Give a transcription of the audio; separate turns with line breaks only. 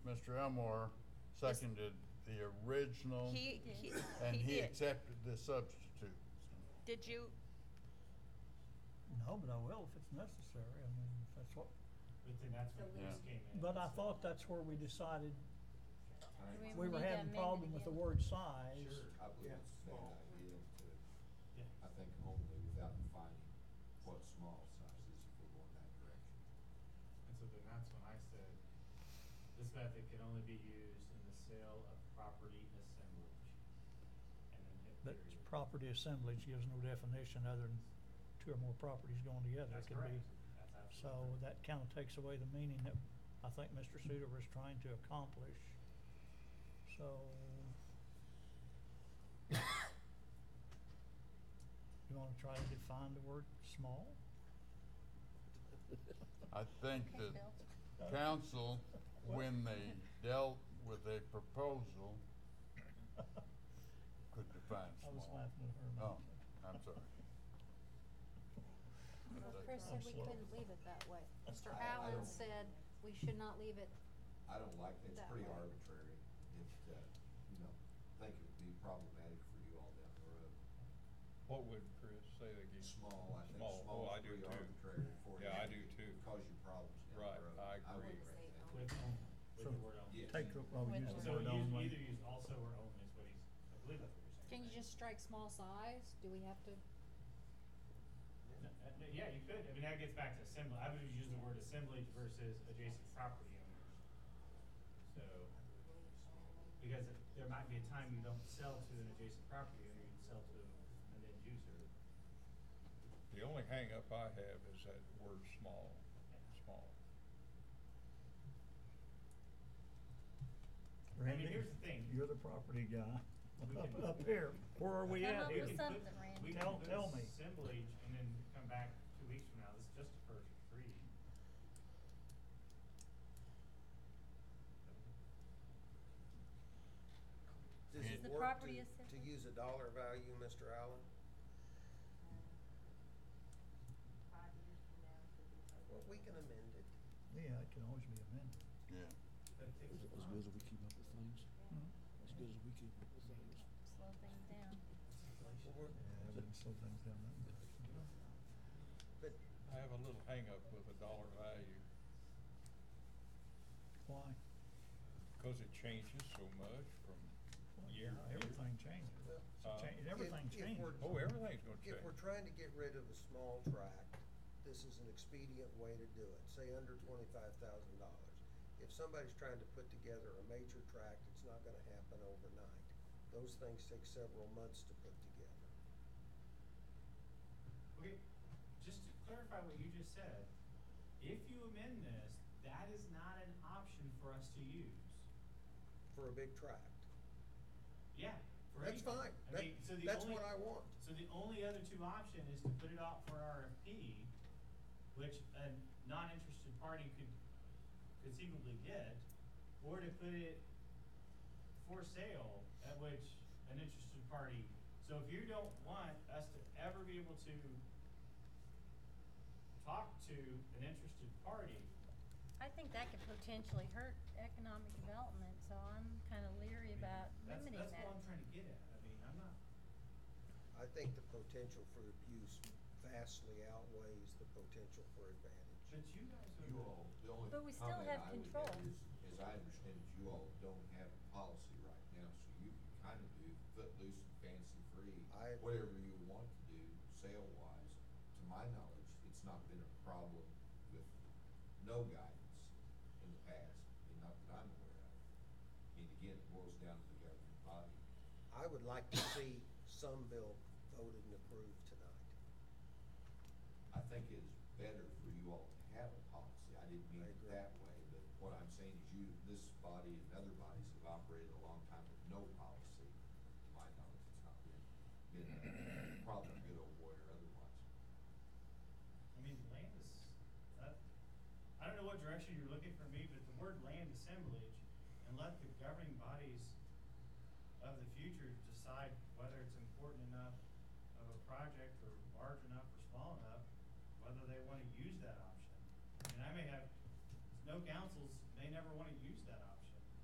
Mr. Elmore seconded the original,
He, he,
and
he
he
did.
accepted the substitute.
Did you,
No, but I will if it's necessary, I mean, if that's what,
But then that's when
Yeah.
this came in.
but I
so-
thought that's where we decided,
Right.
we were
need to
having
amend it
problem with the
again.
word size.
Sure.
I believe it's a bad idea to,
Yeah.
I think only without defining what small size is if we're going that direction.
And so then that's when I said, this method can only be used in the sale of property assemblage. And then hit
But
period.
property assemblage gives no definition other than two or more properties going together.
That's
It could be.
correct. That's
So
absolutely correct.
that kind of takes away the meaning that I think Mr. Suter was trying to accomplish. So. You wanna try to define the word small?
I think that
Bill?
council, when they dealt with a proposal, could define
I was
small.
laughing at her.
Oh, I'm sorry.
Well, Chris
I'm
said we
slow.
couldn't leave it that way. Mr.
I- I
Allen
don't-
said we should not leave it,
I don't like that, it's
That
pretty
way.
arbitrary, it, uh, you know, I think it would be problematic for you all down the road.
What would Chris say again?
Small, I think
Small,
small
oh, I
is
do
pretty
too.
arbitrary for you.
Yeah, I do too.
Cause you problems down
Right,
the road.
I
would
agree.
agree with that.
With only, with
So-
the word only.
Yeah.
Take, the- well, we
With
use
So
the word
use,
only.
either use also or only is what he's, I believe that's what you're saying.
can you
right?
just strike small size? Do we have to?
No, uh, no, Yeah, you could, I mean, that gets back to assembly, I would use the word assemblage versus adjacent property owners. So, because it- there might be a time you don't sell to an adjacent property owner, you sell to an end user.
The only hangup I have is that word small, small.
I mean,
Randy,
here's the thing.
You're the property guy.
We
Up,
can-
up here, where are we
Come
at
up
here?
with
We
some-
can put-
something, Randy.
we can
Tell-
put
tell me.
Assemblage, and then come back two weeks from now, this is just the first reading.
Does
Is
it
the
work
property
to,
assessed?
to use a dollar value, Mr. Allen? Well, we can amend it.
Yeah, it can always be amended.
Yeah,
But it takes
As
time.
good as we keep up with things, as good as we keep up with things.
Slow things down.
Well, we're-
Yeah, we can slow things down that direction.
But
I have a little hangup with a dollar value,
Why?
because it changes so much from
Well,
year to
yeah,
year.
Everything changes.
Well,
It's a
Uh,
change-
if-
Everything
if we're-
changes.
Oh, everything's gonna
if we're
change.
trying to get rid of a small tract, this is an expedient way to do it, say under twenty-five thousand dollars. If somebody's trying to put together a major tract, it's not gonna happen overnight. Those things take several months to put together.
Okay, just to clarify what you just said, if you amend this, that is not an option for us to use.
for a big tract.
Yeah, for
That's
anything.
fine.
I
That-
mean, so the
that's
only-
what I want.
So the only other two option is to put it out for RFP, which a non-interested party could conceivably get, or to put it for sale, at which an interested party, so if you don't want us to ever be able to talk to an interested party,
I think that could potentially hurt economic development, so I'm kind of leery about
that's,
limiting
that's
that.
what I'm trying to get at, I mean, I'm not,
I think the potential for abuse vastly outweighs the potential for advantage.
but you guys are.
You all, the only
But we still
comment
have
I would
control.
have is, as I understand it, you all don't have a policy right now, so you can kind of do footloose and fancy free,
I-
whatever you want to do, sale-wise. To my knowledge, it's not been a problem with no guidance in the past, and not that I'm aware of. And again, it boils down to the governing body.
I would like to see some bill voted and approved tonight.
I think it is better for you all to have a policy, I didn't mean
I
it
agree.
that way, but what I'm saying is you, this body and other bodies have operated a long time with no policy. To my knowledge, it's not been, been a problem, good old boy or otherwise.
I mean, land is, uh, I don't know what direction you're looking for me, but the word land assemblage, and let the governing bodies of the future decide whether it's important enough of a project, or large enough or small enough, whether they wanna use that option. And I may have, no councils may never wanna use that option.